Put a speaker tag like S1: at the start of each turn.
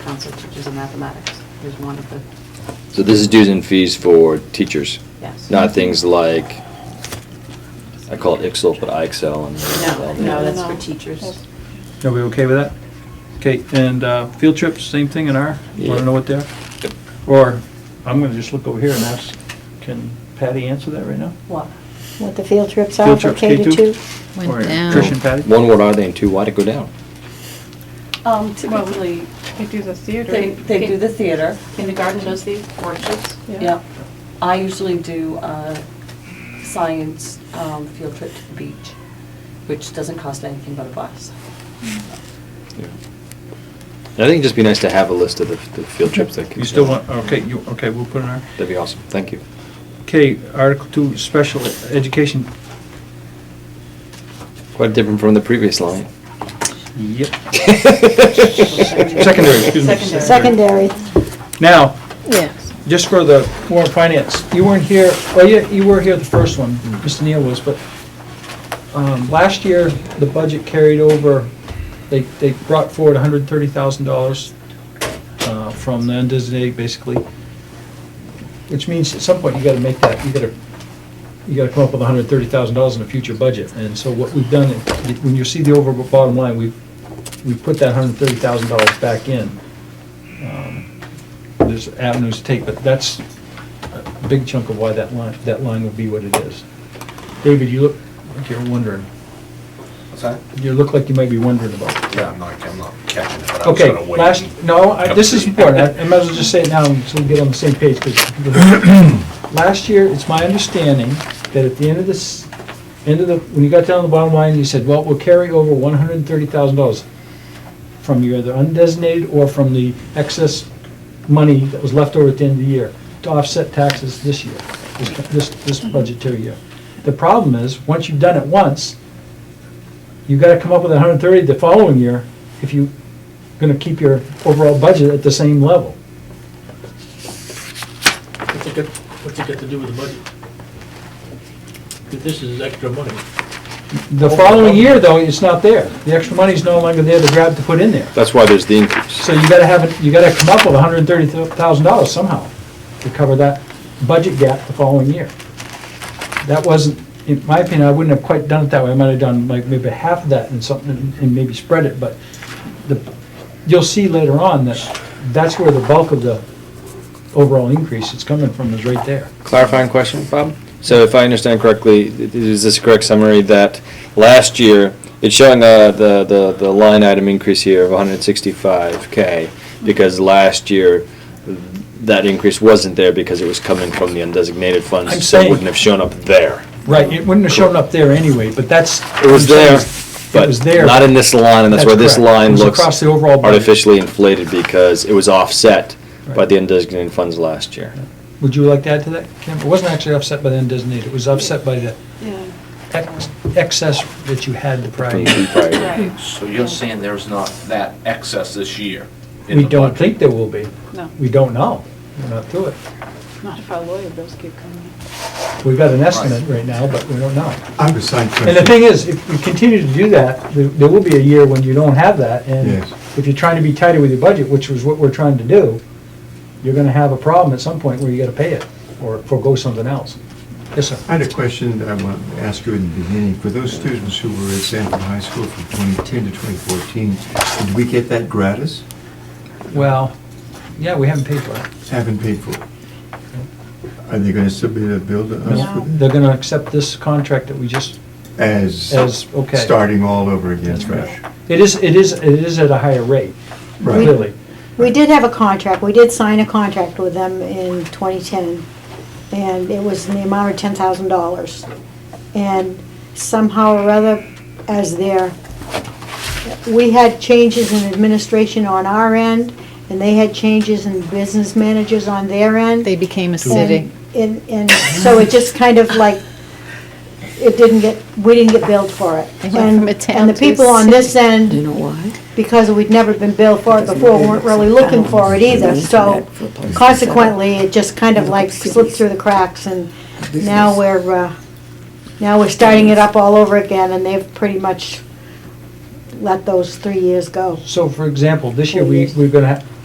S1: Massachusetts, which is in mathematics, is one of the,
S2: So this is dues and fees for teachers,
S1: yes.
S2: not things like, I call it Excel, but
S3: Oh,
S2: iExcel and.
S4: No,
S2: all the-
S4: no, that's
S1: No.
S4: for teachers.
S5: Are we okay with that? Okay, and uh, field trips, same thing in our, want
S2: Yeah.
S5: to know what they're?
S2: Yep.
S5: Or, I'm going to just look over here and ask, can Patty answer that right now?
S1: What?
S6: What the field trips are
S5: Field
S6: for
S5: trips,
S6: K to
S5: K two?
S6: two?
S3: Went
S5: Or
S3: down.
S5: Trish and Patty?
S2: One, what are they, and two, why'd it go down?
S4: Um,
S7: Typically, they do the theater.
S4: They, they do the theater,
S1: Kindergarten does the workshops?
S4: yep. I usually do, uh, science, um, field trip to the beach, which doesn't cost anything but a bus.
S2: I think it'd just be nice to have a list of the, the field trips that. could-
S5: You still want, okay, you, okay, we'll put in our,
S2: That'd be awesome, thank you.
S5: okay, Article Two, special education.
S2: Quite different from the previous line.
S5: Yep. Secondary, excuse me.
S4: Secondary.
S6: Secondary,
S5: Now,
S3: Yes.
S5: just for the Warren Finance, you weren't here, well, you, you were here the first one, Mr. Neal was, but, um, last year, the budget carried over, they, they brought forward hundred and thirty thousand dollars, uh, from the undesignated, basically, which means at some point, you gotta make that, you gotta, you gotta come up with hundred and thirty thousand dollars in a future budget, and so what we've done, when you see the over bottom line, we've, we've put that hundred and thirty thousand dollars back in. Um, there's avenues to take, but that's a big chunk of why that line, that line will be what it is. David, you look like you're wondering.
S8: What's that?
S5: You look like you might be wondering about.
S8: Yeah, I'm not, I'm not catching it, but I was
S5: Okay,
S8: gonna wait.
S5: last, no, I- this is important. I I might as well just say it now so we get on the same page. 'cause Last year, it's my understanding that at the end of this, end of the, when you got down to the bottom line, you said, well, we'll carry over one hundred and thirty thousand dollars from your either undesignated or from the excess money that was left over at the end of the year to offset taxes this year, this- this, this budgetary year. The problem is, once you've done it once, you gotta come up with hundred and thirty the following year if you, are gonna keep your overall budget at the same level.
S9: What's it got, what's it got to do with the budget? If This is extra money.
S5: The following year, though, it's not there. The extra money's no longer there to grab to put in there.
S2: That's why there's the increase.
S5: So you gotta have, it. you gotta come up with hundred and thirty thousand dollars somehow to cover that budget gap the following year. That wasn't, in my opinion, I wouldn't have quite done it that way. I might have done like maybe half of that and something, and maybe spread it, but the, you'll see later on that that's where the bulk of the overall increase is coming from is right there.
S2: Clarifying question, Bob? So if I understand correctly, th- is this a correct summary that last year, it's showing uh, the, the, the line item increase here of 165K because last year, that increase wasn't there because it was coming from the undesignated
S5: I'm
S2: funds, so it
S5: saying-
S2: wouldn't have shown up there.
S5: Right, it wouldn't have shown up there anyway, but that's.
S2: It was there,
S5: It was
S2: but
S5: there.
S2: not in this line, and that's
S5: That's
S2: why this
S5: correct. It
S2: line
S5: was
S2: looks
S5: across the overall budget.
S2: artificially inflated because it was offset by
S5: Right.
S2: the undesignated funds last year.
S5: Would you like to add to that, Kim? It wasn't actually offset by the undesignated, it was offset by the
S7: Yeah.
S5: ex- excess that you had the prior
S2: From
S5: year.
S2: the prior year.
S7: Right,
S8: So you're saying there's not that excess this year? in
S5: We
S8: the
S5: don't
S8: budget?
S5: think there will be.
S7: no,
S5: We don't know. We're not through it.
S7: not if our lawyer bills keep coming.
S5: We've got an estimate right now, but we don't know.
S10: I have a side question.
S5: And the thing is, if we continue to do that, there- there will be a year when you don't have that. And
S10: Yes.
S5: if you're trying to be tighter with your budget, which was what we're trying to do, you're gonna have a problem at some point where you gotta pay it or forego something else. Yes, sir.
S10: I had a question that I want to ask you in the beginning. For those students who were at Sanford High School from 2010 to 2014, did we get that gratis?
S5: Well, yeah, we haven't paid for it.
S10: Haven't paid for it. Are they going to submit a bill to us for
S5: They're
S10: that?
S5: gonna accept this contract that we just,
S10: As?
S5: As- okay.
S10: Starting all over again,
S5: That's right.
S10: fresh.
S5: it is, it is, it is at a higher rate,
S10: Right.
S5: clearly.
S6: we did have a contract, we did sign a contract with them in 2010, and it was in the amount of $10,000. And somehow or other, as their, we had changes in administration on our end, and they had changes in business managers on their end.
S3: They became a city.
S6: And, and- and so it just kind of like, it didn't get, we didn't get billed for it.
S3: They went from a
S6: And-
S3: town
S6: And the
S3: to a
S6: people on this end
S3: You know why?
S6: because we'd never been billed for it before, weren't really looking for it either, so consequently, it just kind of like slipped through the cracks, and now we're, uh, now we're starting it up all over again, and they've pretty much let those three years go.
S5: So for example, this year, we, we're gonna, ha-